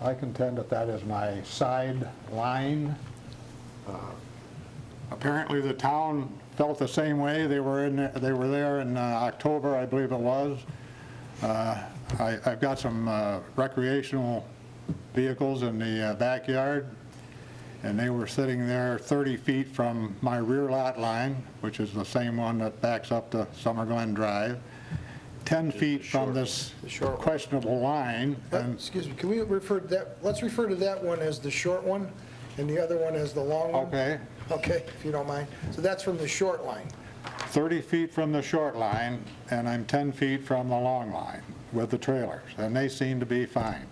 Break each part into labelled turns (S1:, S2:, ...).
S1: I contend that that is my side line. Uh, Apparently, the town felt the same way. They were in, they were there in uh, October, I believe it was. Uh, I- I've got some uh, recreational vehicles in the uh, backyard, and they were sitting there 30 feet from my rear lot line, which is the same one that backs up to Summer Glen Drive, 10 feet from this
S2: the short one.
S1: questionable line, and
S3: Uh, Excuse me, can we refer to that, let's refer to that one as the short one, and the other one as the long
S2: um,
S3: one?
S1: Okay.
S3: Okay, if you don't mind. So that's from the short line.
S1: 30 feet from the short line, and I'm 10 feet from the long line with the trailers, and they seem to be fine.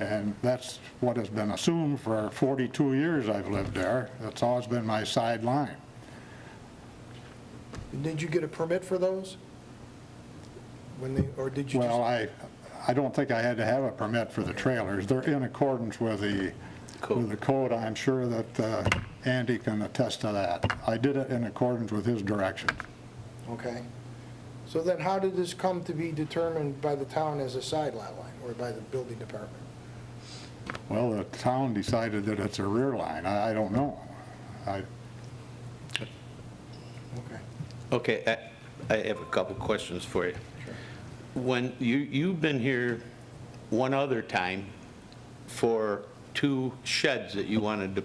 S1: And that's what has been assumed for 42 years I've lived there. That's always been my sideline.
S3: Did you get a permit for those? When they, or did you
S1: Well,
S3: just?
S1: I, I don't think I had to have a permit for the trailers. They're in accordance with the, with the code. I'm sure that uh, Andy can attest to that. I did it in accordance with his direction.
S3: Okay. So then how did this come to be determined by the town as a side lot line, or by the building department?
S1: Well, the town decided that it's a rear line. I, I don't know. I,
S3: Okay.
S2: Okay, I- I have a couple questions for you. When, you, you've been here one other time for two sheds that you wanted to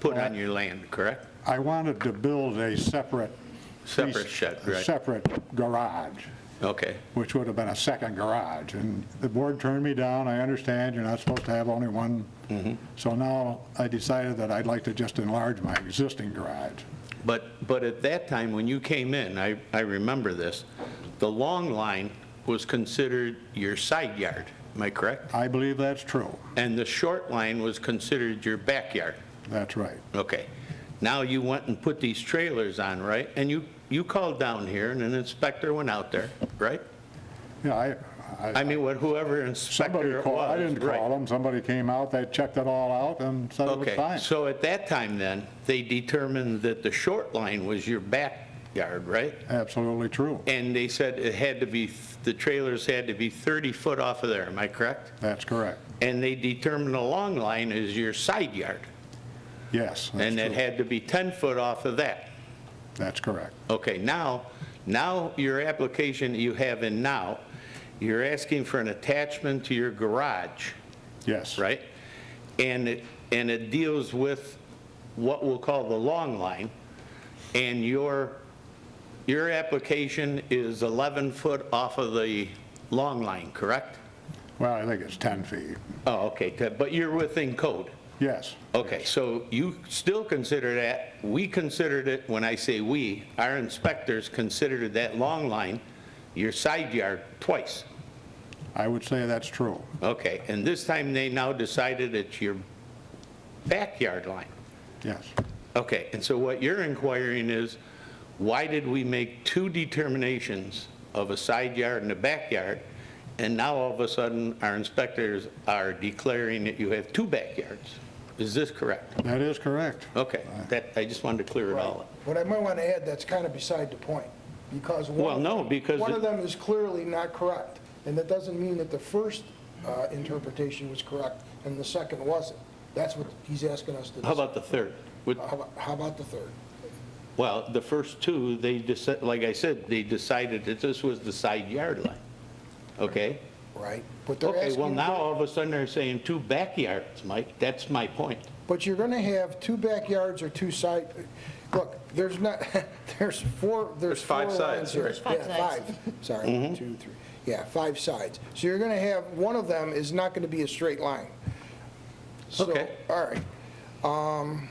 S2: put on your land, correct?
S1: I wanted to build a separate.
S2: Separate shed,
S1: a
S2: right.
S1: Separate garage,
S2: Okay,
S1: which would have been a second garage. And the board turned me down. I understand you're not supposed to have only one.
S2: Mm-hmm.
S1: So now I decided that I'd like to just enlarge my existing garage.
S2: but, but at that time, when you came in, I, I remember this, the long line was considered your side yard, am I correct?
S1: I believe that's true.
S2: And the short line was considered your backyard.
S1: That's right.
S2: Okay. Now you went and put these trailers on, right? And you, you called down here and an inspector went out there, right?
S1: Yeah, I, I,
S2: I mean, what- whoever
S1: somebody
S2: inspector it
S1: called,
S2: was.
S1: I didn't
S2: right.
S1: call them. Somebody came out, they checked it all out and said it was
S2: Okay,
S1: fine.
S2: so at that time then, they determined that the short line was your backyard, right?
S1: Absolutely true.
S2: And they said it had to be, the trailers had to be 30 foot off of there, am I correct?
S1: That's correct.
S2: And they determined the long line is your side yard,
S1: Yes, that's
S2: and it
S1: true.
S2: had to be 10 foot off of that.
S1: That's correct.
S2: Okay, now, now your application that you have in now, you're asking for an attachment to your garage,
S1: Yes.
S2: right? And it, and it deals with what we'll call the long line, and your, your application is 11 foot off of the long line, correct?
S1: Well, I think it's 10 feet.
S2: Oh, okay, t- but you're within code.
S1: Yes.
S2: Okay, so you still consider that, we considered it, when I say we, our inspectors considered that long line your side yard twice.
S1: I would say that's true.
S2: Okay, and this time they now decided it's your backyard line.
S1: Yes.
S2: Okay, and so what you're inquiring is, why did we make two determinations of a side yard and a backyard? And now all of a sudden, our inspectors are declaring that you have two backyards. Is this correct?
S1: That is correct.
S2: Okay, that, I just wanted to clear it all up.
S3: What I might want to add, that's kind of beside the point, because one...
S2: Well, no, because
S3: One
S2: it-
S3: of them is clearly not correct, and that doesn't mean that the first uh, interpretation was correct and the second wasn't. That's what he's asking us to...
S2: How about the third? With-
S3: How about- How about the third?
S2: Well, the first two, they decided, like I said, they decided that this was the side yard line, okay?
S3: Right? But they're
S2: Okay, well,
S3: asking-
S2: now all of a sudden they're saying two backyards, Mike, that's my point.
S3: But you're going to have two backyards or two side, look, there's not, there's four, there's
S4: There's
S3: four
S4: five
S3: lines
S4: sides,
S3: here.
S4: right. Mm-hmm.
S5: Five
S3: Yeah,
S5: sides.
S3: five, sorry, one, two, three, yeah, five sides. So you're going to have, one of them is not going to be a straight line. So,
S2: Okay.
S3: All right. Um,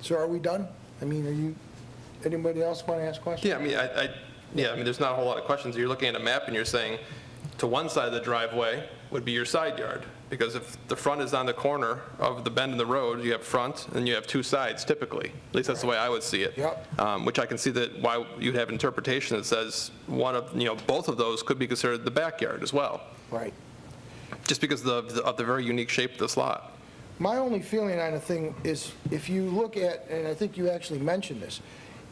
S3: So are we done? I mean, are you, anybody else want to ask questions?
S4: Yeah, I mean, I, I, yeah, I mean, there's not a whole lot of questions. You're looking at a map and you're saying, to one side of the driveway would be your side yard, because if the front is on the corner of the bend in the road, you have front and you have two sides typically. At least that's the way I would see it.
S3: Yep.
S4: Um, Which I can see that why you'd have interpretation that says one of, you know, both of those could be considered the backyard as well,
S3: Right.
S4: just because of, the- of the very unique shape of this lot.
S3: My only feeling on the thing is, if you look at, and I think you actually mentioned this,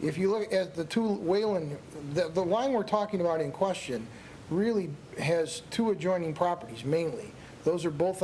S3: if you look at the two Wayland, the, the line we're talking about in question really has two adjoining properties mainly. Those are both